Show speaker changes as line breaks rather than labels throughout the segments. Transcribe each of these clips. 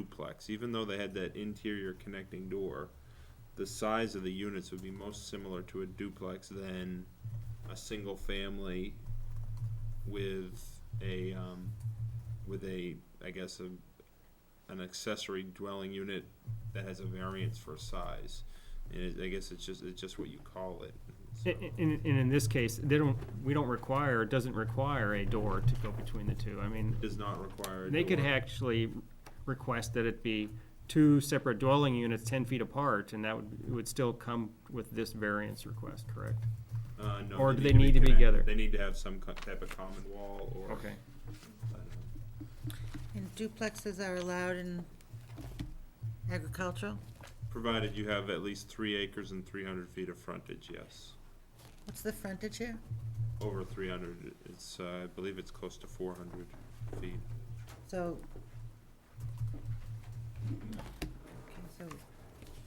duplex, even though they had that interior connecting door, the size of the units would be most similar to a duplex than a single family with a, um, with a, I guess, a, an accessory dwelling unit that has a variance for size. And it, I guess it's just, it's just what you call it.
I-
so.
i- In, in, in this case, they don't, we don't require, it doesn't require a door to go between the two. I mean,
Does not require a
they could
door.
actually request that it be two separate dwelling units ten feet apart, and that would, it would still come with this variance request, correct?
Uh, no,
or do they need to be
connect-
together?
They need to have some co- type of common wall or.
Okay.
I don't know.
And duplexes are allowed in agricultural?
Provided you have at least three acres and three hundred feet of frontage, yes.
What's the frontage here?
Over three hundred, it's, uh, I believe it's close to four hundred feet.
So. Okay, so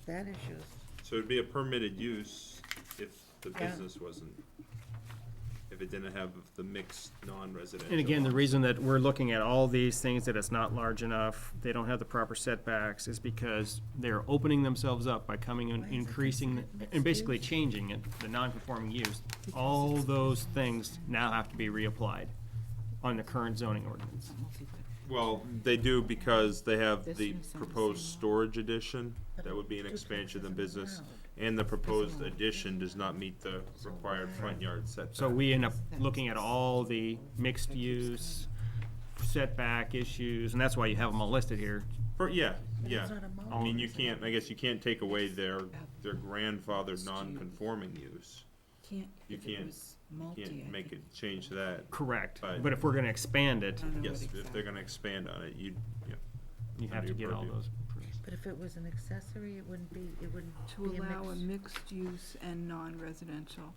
that issue is,
So it'd be a permitted use if the
Yeah.
business wasn't, if it didn't have the mixed non-residential.
And again, the
lots.
reason that we're looking at all these things, that it's not large enough, they don't have the proper setbacks, is because they're opening themselves up by coming and
Why is it
increasing,
considered
and
mixed
basically
use?
changing it, the non-conforming use. All those things now have to be reapplied on the current zoning ordinance.
Well, they do because they have
This
the
is on the
proposed
same lot.
storage addition,
But
that would be an
duplex
expansion of
isn't
the business.
allowed.
And the proposed
allowed.
addition does not meet the required front yard setback.
So we end up looking at all the mixed use setback issues, and that's why you have them all listed here.
For- yeah,
but
yeah. Um,
it's not a mall.
I mean, you can't, I guess you can't take away their, their grandfathered non-conforming use.
Can't,
You
if it
can't-
was multi,
You
I
Can't make it
think-
change to that.
Correct,
Right.
but if we're gonna expand
I
it,
don't know what
Yes, if
exactly.
they're gonna expand on it, you, yeah.
you have to get all those.
But if it was an accessory, it wouldn't be, it wouldn't
To
be a
allow a
mix.
mixed use and non-residential.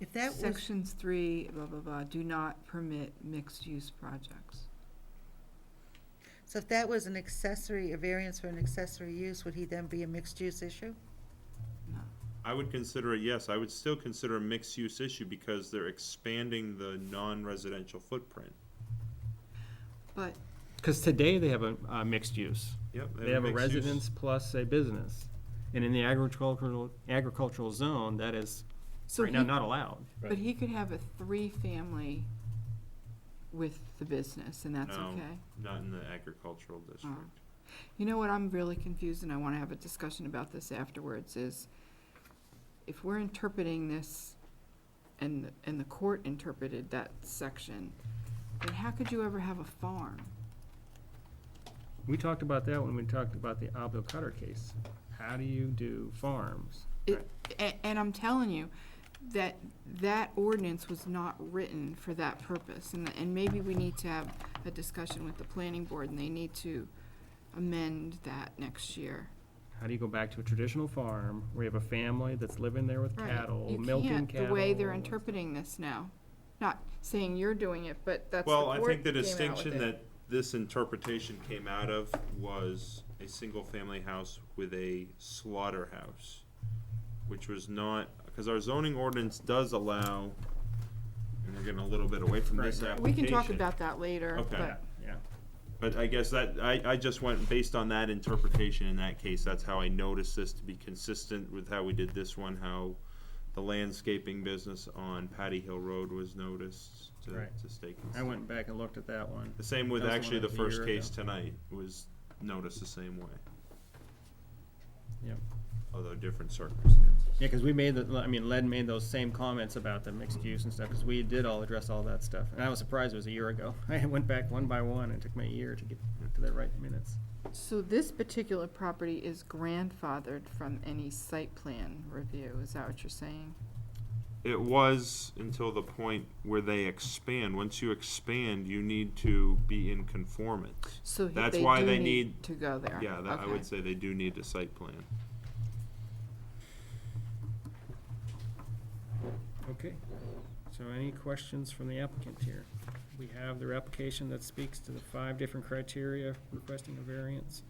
If that was,
Sections three, blah, blah, blah, do not permit mixed-use projects.
so if that was an accessory, a variance for an accessory use, would he then be a mixed use issue?
No.
I would consider it, yes, I would still consider a mixed-use issue because they're expanding the non-residential footprint.
But
Because today they have a, a mixed use.
Yep.
They have a
mixed use.
residence plus a business. And in the agricultural, agricultural zone, that is
So
right now
he-
not allowed.
But he could have a three-family with the business, and that's
No.
okay?
Not in the agricultural district.
You know what, I'm really confused, and I wanna have a discussion about this afterwards, is if we're interpreting this, and, and the court interpreted that section, then how could you ever have a farm?
We talked about that when we talked about the Abel Cutter case. How do you do farms?
It, and, and I'm telling you, that, that ordinance was not written for that purpose, and, and maybe we need to have a discussion with the planning board, and they need to amend that next year.
How do you go back to a traditional farm where you have a family that's living there with
Right.
cattle,
You
milking
can't,
cattle?
The way they're
and-
interpreting this now, not saying you're doing it, but that's the
Well,
court
I think the
came out with
distinction
it.
that this interpretation came out of was a single-family house with a slaughterhouse, which was not, because our zoning ordinance does allow, and we're getting a little bit away from this
Right, right.
application.
We can talk about that later,
Okay.
Yeah,
but
yeah.
But I guess that, I, I just went, based on that interpretation in that case, that's how I noticed this to be consistent with how we did this one, how the landscaping business on Patty Hill Road was noticed to,
Right.
to stay consistent.
I went back and looked at that one.
The same with
That was the
actually
one
the
that was a
first
year
case tonight was noticed the same way.
Yep.
Although different circumstances.
Yeah, because we made the, I mean, Len made those same comments about the mixed use and stuff, because we did all address all that stuff. And I was surprised it was a year ago. I went back one by one, and it took me a year to get to the right minutes.
So this particular property is grandfathered from any site plan review, is that what you're saying?
It was until the point where they expand. Once you expand, you need to be in conformance.
So he-
That's
they
why
do
they
need
need-
to go there.
Yeah, that, I would
Okay.
say they do need a site plan.
Okay. So any questions from the applicant here? We have their application that speaks to the five different criteria requesting a variance.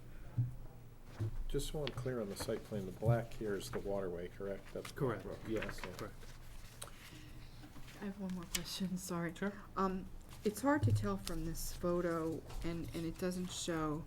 Just so I'm clear on the site plan, the black here is the waterway, correct? That's Black
Correct.
Brook.
Yes,
Okay.
correct.
I have one more question, sorry.
Sure.
Um, it's hard to tell from this photo, and, and it doesn't show